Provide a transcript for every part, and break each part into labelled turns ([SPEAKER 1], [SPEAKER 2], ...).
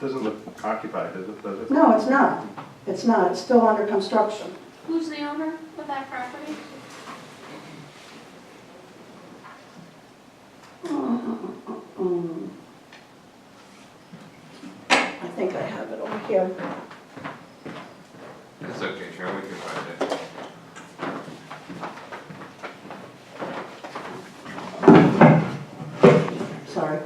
[SPEAKER 1] Doesn't look occupied, does it, does it?
[SPEAKER 2] No, it's not. It's not. It's still under construction.
[SPEAKER 3] Who's the owner of that property?
[SPEAKER 2] Mm. I think I have it over here.
[SPEAKER 4] That's okay, Sharon, we can find it.
[SPEAKER 2] Sorry.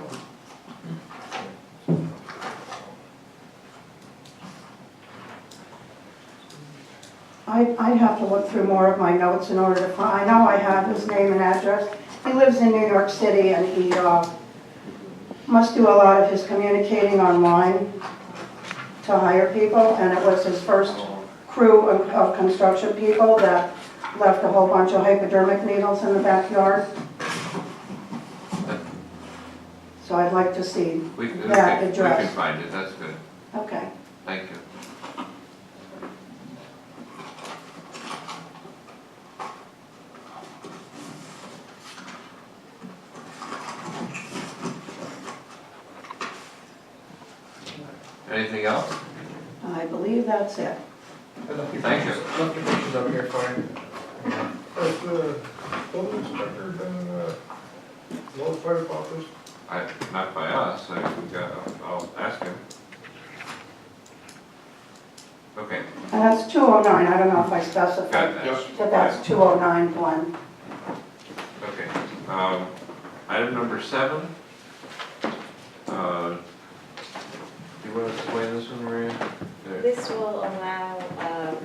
[SPEAKER 2] I, I'd have to look through more of my notes in order to find, I know I have his name and address. He lives in New York City and he, uh, must do a lot of his communicating online to hire people, and it was his first crew of, of construction people that left a whole bunch of hypodermic needles in the backyard. So I'd like to see,
[SPEAKER 4] We we
[SPEAKER 2] That
[SPEAKER 4] can, we can
[SPEAKER 2] address.
[SPEAKER 4] find it, that's good,
[SPEAKER 2] okay.
[SPEAKER 4] thank you. Anything else?
[SPEAKER 2] I believe that's it.
[SPEAKER 4] Thank you.
[SPEAKER 5] Nothing is up here for you.
[SPEAKER 6] Has the building inspector been uh, notified about this?
[SPEAKER 4] I, not by us, I, we got- I'll ask him. Okay,
[SPEAKER 2] And that's 209, I don't know if I
[SPEAKER 4] got
[SPEAKER 2] specified,
[SPEAKER 4] that.
[SPEAKER 2] but that's 209 Glen.
[SPEAKER 4] Okay, um, item number seven. Uh, Do you want to explain this one, Maria? There.
[SPEAKER 7] This will allow um,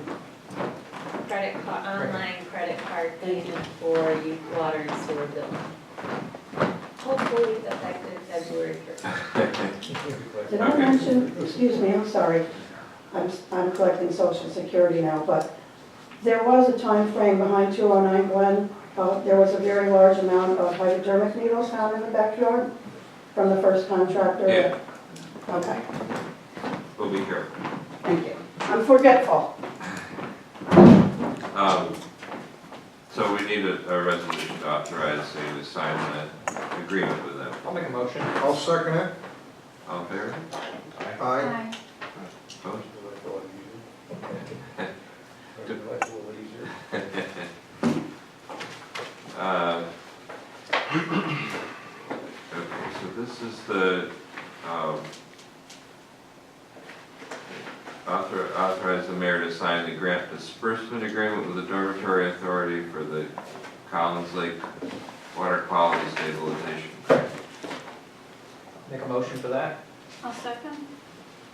[SPEAKER 7] credit, ca- online credit card payment for you water and sewer bill. Hopefully effective February first.
[SPEAKER 4] Uh,
[SPEAKER 2] Did I
[SPEAKER 4] Okay.
[SPEAKER 2] mention, excuse me, I'm sorry, I'm, I'm collecting social security now, but there was a time frame behind 209 Glen, uh, there was a very large amount of hypodermic needles found in the backyard from the first contractor.
[SPEAKER 4] Yeah.
[SPEAKER 2] Okay,
[SPEAKER 4] We'll be here.
[SPEAKER 2] thank you. I'm forgetful.
[SPEAKER 4] Um, So we need a, a resolution to authorize, say, to sign that agreement with them.
[SPEAKER 5] I'll make a motion.
[SPEAKER 6] I'll second it.
[SPEAKER 4] All in favor?
[SPEAKER 6] Aye.
[SPEAKER 3] Hi.
[SPEAKER 4] Opposed? Um, Okay, so this is the, um, author- authorize the mayor to sign the grant disbursement agreement with the dormitory authority for the Collins Lake Water Quality Stabilization Grant.
[SPEAKER 5] Make a motion for that.
[SPEAKER 3] I'll second.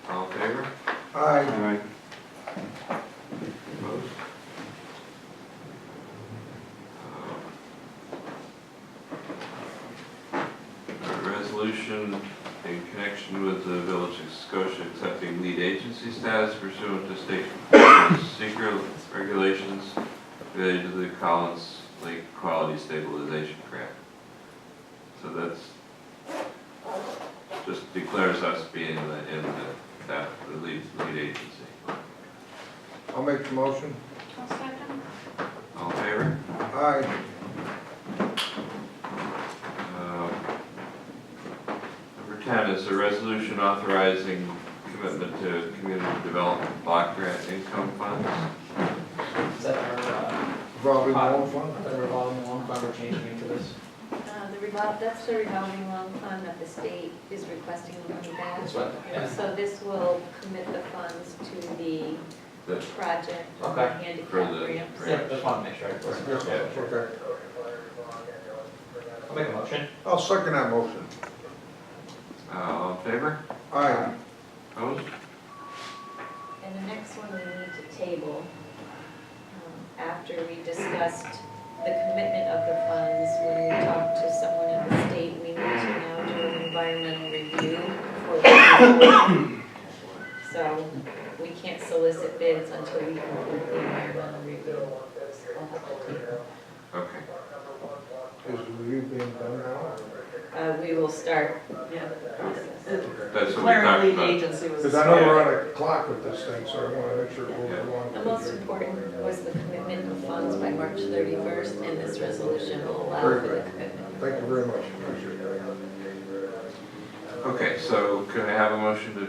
[SPEAKER 4] All in favor?
[SPEAKER 6] Aye.
[SPEAKER 4] Opposed? A Resolution in connection with the Village of Scotia accepting lead agency status pursuant to state secret regulations related to the Collins Lake Quality Stabilization Grant. So that's, just declares us being in the, in the, that, the lead, lead agency.
[SPEAKER 6] I'll make the motion.
[SPEAKER 3] I'll second.
[SPEAKER 4] All in favor?
[SPEAKER 6] Aye.
[SPEAKER 4] Um, Number 10 is a resolution authorizing commitment to community development block grant income funds.
[SPEAKER 5] Is that our,
[SPEAKER 6] Probably won't
[SPEAKER 5] uh,
[SPEAKER 6] fund.
[SPEAKER 5] that revolving loan fund we're changing into this?
[SPEAKER 7] Uh, The revol, that's the revolving loan fund that the state is requesting the money back.
[SPEAKER 5] That's what, yeah.
[SPEAKER 7] So this will commit the funds to the
[SPEAKER 4] The-
[SPEAKER 7] project
[SPEAKER 5] Okay.
[SPEAKER 7] handicap
[SPEAKER 4] For the-
[SPEAKER 7] ramps.
[SPEAKER 4] for-
[SPEAKER 5] Yeah, just want to make sure. I was-
[SPEAKER 6] Okay.
[SPEAKER 5] I'll make a motion.
[SPEAKER 6] I'll second that motion.
[SPEAKER 4] Uh, All in favor?
[SPEAKER 6] Aye.
[SPEAKER 4] Opposed?
[SPEAKER 7] And the next one we need to table, um, after we discussed the commitment of the funds, when we talked to someone at the state, we need to now do an environmental review for the. So we can't solicit bids until we complete the environmental review. So we'll have to table.
[SPEAKER 4] Okay.
[SPEAKER 6] Is the review being done now?
[SPEAKER 7] Uh, we will start, yeah, the process.
[SPEAKER 4] That's what we talked
[SPEAKER 8] Clarity
[SPEAKER 4] about.
[SPEAKER 8] agency was.
[SPEAKER 6] Because I know we're on a clock with this thing, so I want to make sure we're along.
[SPEAKER 7] The most important was the commitment of funds by March thirty-first, and this resolution will allow for the commitment.
[SPEAKER 6] Thank you very much. Appreciate it.
[SPEAKER 4] Okay, so can I have a motion to